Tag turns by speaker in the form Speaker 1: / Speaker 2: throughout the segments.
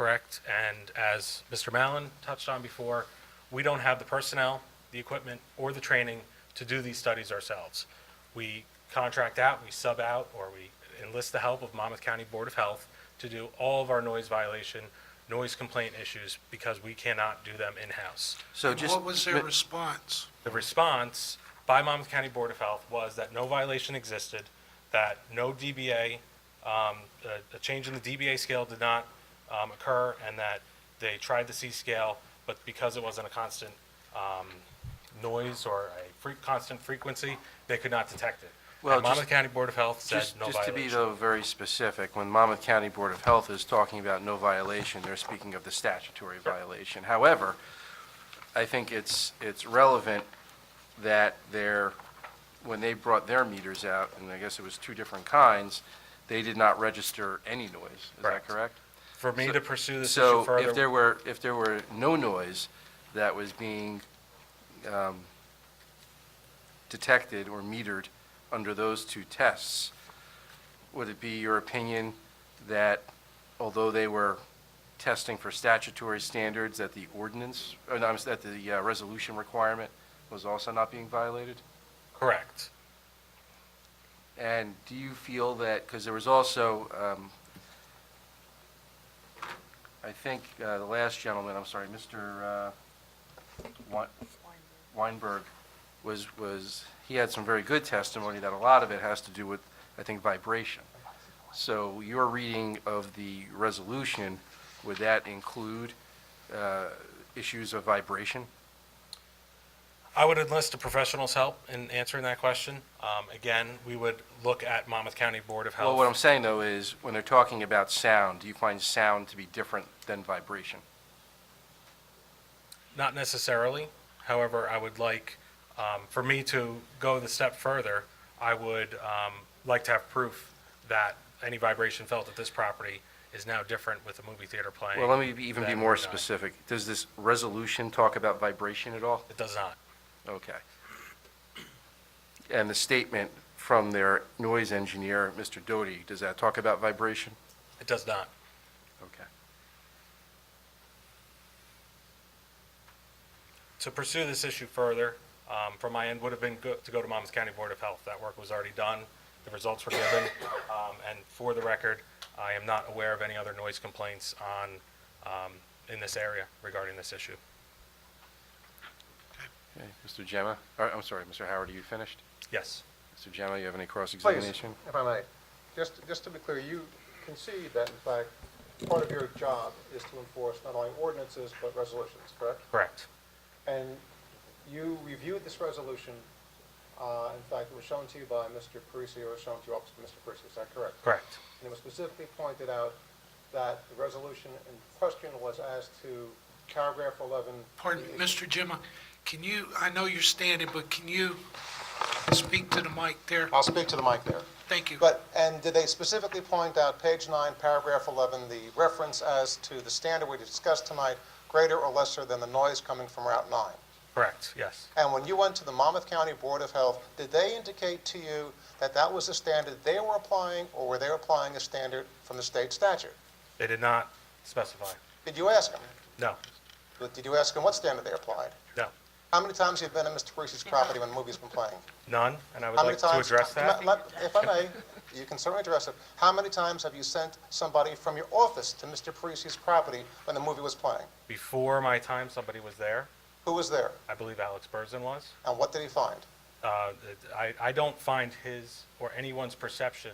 Speaker 1: correct. And as Mr. Mallon touched on before, we don't have the personnel, the equipment, or the training to do these studies ourselves. We contract out, we sub out, or we enlist the help of Monmouth County Board of Health to do all of our noise violation, noise complaint issues, because we cannot do them in-house.
Speaker 2: So just.
Speaker 3: What was their response?
Speaker 1: The response by Monmouth County Board of Health was that no violation existed, that no DBA, um, a, a change in the DBA scale did not, um, occur, and that they tried the C scale, but because it wasn't a constant, um, noise or a fre- constant frequency, they could not detect it.
Speaker 2: Well,
Speaker 1: And Monmouth
Speaker 2: just-
Speaker 1: County Board of Health said
Speaker 2: Just
Speaker 1: no
Speaker 2: just to be,
Speaker 1: violation.
Speaker 2: though, very specific, when Monmouth County Board of Health is talking about no violation, they're speaking of the statutory violation. However, I think it's, it's relevant that they're, when they brought their meters out, and I guess it was two different kinds, they did not register any noise. Is that
Speaker 1: Correct.
Speaker 2: correct?
Speaker 1: For me
Speaker 2: so-
Speaker 1: to pursue this issue
Speaker 2: So
Speaker 1: further.
Speaker 2: if there were, if there were no noise that was being um, detected or metered under those two tests, would it be your opinion that although they were testing for statutory standards, that the ordinance, or no, I'm s- that the uh, resolution requirement was also not being violated?
Speaker 1: Correct.
Speaker 2: And do you feel that, because there was also, um, I think, uh, the last gentleman, I'm sorry, Mr. uh, Wein- Weinberg, was, was, he had some very good testimony that a lot of it has to do with, I think, vibration. So your reading of the resolution, would that include uh, issues of vibration?
Speaker 1: I would enlist a professional's help in answering that question. Um, again, we would look at Monmouth County Board of Health.
Speaker 2: Well, what I'm saying, though, is when they're talking about sound, do you find sound to be different than vibration?
Speaker 1: Not necessarily. However, I would like, um, for me to go the step further, I would um, like to have proof that any vibration felt at this property is now different with the movie theater playing.
Speaker 2: Well, let me be- even be
Speaker 1: than
Speaker 2: more
Speaker 1: not.
Speaker 2: specific. Does this resolution talk about vibration at all?
Speaker 1: It does not.
Speaker 2: Okay. And the statement from their noise engineer, Mr. Doty, does that talk about vibration?
Speaker 1: It does not.
Speaker 2: Okay.
Speaker 1: To pursue this issue further, um, from my end, would have been go- to go to Monmouth County Board of Health. That work was already done. The results were given. Um, And for the record, I am not aware of any other noise complaints on, um, in this area regarding this issue.
Speaker 2: Okay, Mr. Gemma, or, I'm sorry, Mr. Howard, are you finished?
Speaker 1: Yes.
Speaker 2: Mr. Gemma, you have any
Speaker 4: Please,
Speaker 2: cross-examination?
Speaker 4: if I may, just, just to be clear, you concede that in fact, part of your job is to enforce not only ordinances but resolutions, correct?
Speaker 1: Correct.
Speaker 4: And you reviewed this resolution, uh, in fact, it was shown to you by Mr. Parisi or it was shown to you opposite Mr. Parisi, is that correct?
Speaker 1: Correct.
Speaker 4: And it was specifically pointed out that the resolution in question was as to paragraph 11.
Speaker 3: Pardon,
Speaker 4: the-
Speaker 3: Mr. Jimma, can you, I know you're standing, but can you speak to the mic there?
Speaker 4: I'll speak to the mic there.
Speaker 3: Thank you.
Speaker 4: Uh, But, and did they specifically point out, page nine, paragraph 11, the reference as to the standard we discussed tonight, greater or lesser than the noise coming from Route 9?
Speaker 1: Correct, yes.
Speaker 4: And when you went to the Monmouth County Board of Health, did they indicate to you that that was the standard they were applying, or were they applying a standard from the state statute?
Speaker 1: They did not specify.
Speaker 4: Did you ask them?
Speaker 1: No,
Speaker 4: Did you ask them what standard they applied?
Speaker 1: no,
Speaker 4: How many times have you been to Mr. Parisi's property when the movie's been playing?
Speaker 1: none, and I would
Speaker 4: How many
Speaker 1: like to
Speaker 4: times?
Speaker 1: address that.
Speaker 4: Let- let- If I may, you can certainly address it. How many times have you sent somebody from your office to Mr. Parisi's property when the movie was playing?
Speaker 1: Before my time, somebody was there,
Speaker 4: Who was there,
Speaker 1: I believe Alex Burson was.
Speaker 4: and what did he find?
Speaker 1: Uh, I, I don't find his or anyone's perception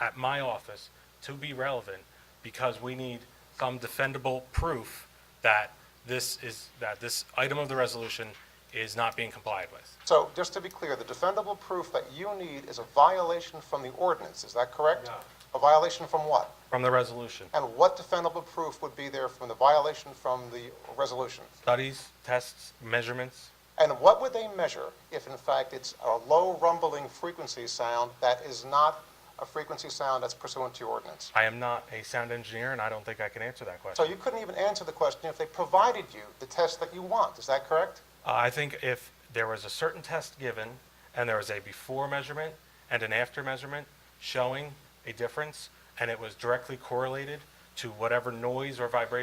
Speaker 1: at my office to be relevant because we need some defendable proof that this is, that this item of the resolution is not being complied with.
Speaker 4: So, just to be clear, the defendable proof that you need is a violation from the ordinance, is that correct?
Speaker 1: No.
Speaker 4: A violation from what?
Speaker 1: From the resolution,
Speaker 4: And what defendable proof would be there from the violation from the resolution?
Speaker 1: studies, tests, measurements,
Speaker 4: And what would they measure if, in fact, it's a low rumbling frequency sound that is not a frequency sound that's pursuant to your ordinance?
Speaker 1: I am not a sound engineer and I don't think I can answer that question.
Speaker 4: So you couldn't even answer the question if they provided you the test that you want, is that correct?
Speaker 1: Uh, I think if there was a certain test given, and there was a before measurement and an after measurement showing a difference, and it was directly correlated to whatever noise or vibration